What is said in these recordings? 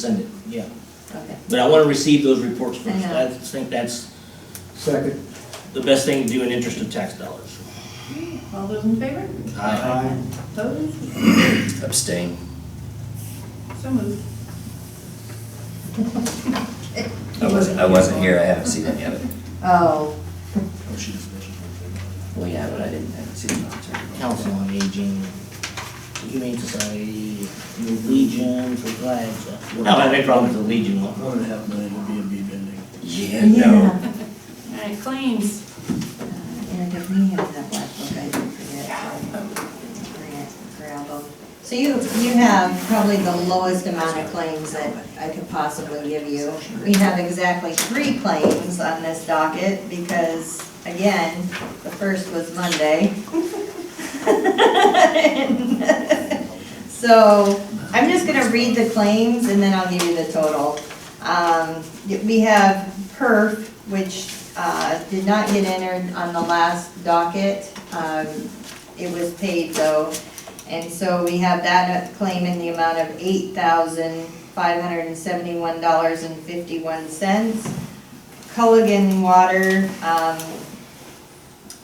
Send it, yeah. Okay, But I want to receive those reports first. Yeah. I think that's Second. the best thing to do in interest of tax dollars. all those in favor? Aye. Opposed? Abstain. So moved. I wasn't, I wasn't here, I haven't seen any of it. Oh, Well, yeah, but I didn't, I haven't seen it. on Twitter. Council on Aging, Humane Society, the Legion for flags. I don't have any problem with the Legion one. One and a half million would be a B bending. Yeah, no. yeah. All right, claims. Uh, And if we have that black book, I didn't forget. Grant, Gravel. So you, you have probably the lowest amount of claims that I could possibly give you. We have exactly three claims on this docket because, again, the first was Monday. So I'm just gonna read the claims and then I'll give you the total. Um, We have perf, which uh, did not get entered on the last docket. Um, It was paid though, and so we have that claim in the amount of eight thousand five hundred and seventy-one dollars and fifty-one cents. Culligan Water, um,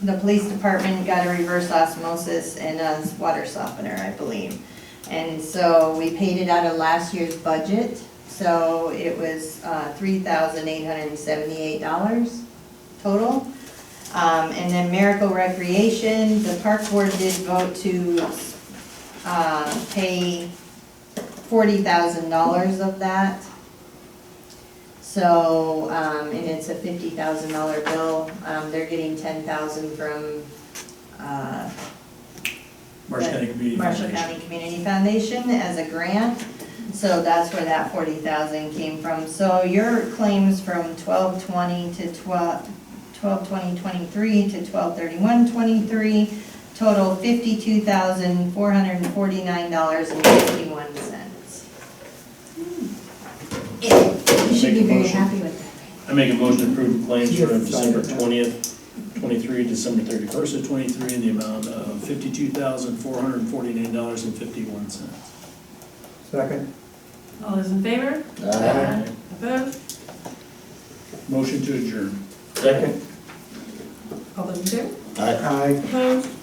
the police department got a reverse osmosis and a water softener, I believe. And so we paid it out of last year's budget, so it was uh, three thousand eight hundred and seventy-eight dollars total. Um, and then Miracle Recreation, the park board did vote to, uh, pay forty thousand dollars of that. So, um, and it's a fifty thousand dollar bill, um, they're getting ten thousand from, uh, Marsh County Community Marshall Foundation. County Community Foundation as a grant, so that's where that forty thousand came from. So your claims from twelve twenty to twelve, twelve twenty twenty-three to twelve thirty-one twenty-three total fifty-two thousand, four hundred and forty-nine dollars and fifty-one cents. You should be Make a very motion. happy with that. I make a motion to approve the claims You for have to sign December it now. twentieth, twenty-three, December thirty-first of twenty-three, in the amount of fifty-two thousand, four hundred and forty-nine dollars and fifty-one cents. Second. All those in favor? Aye. Opposed? Motion to adjourn. Second? All those in favor? Aye. Aye. Opposed?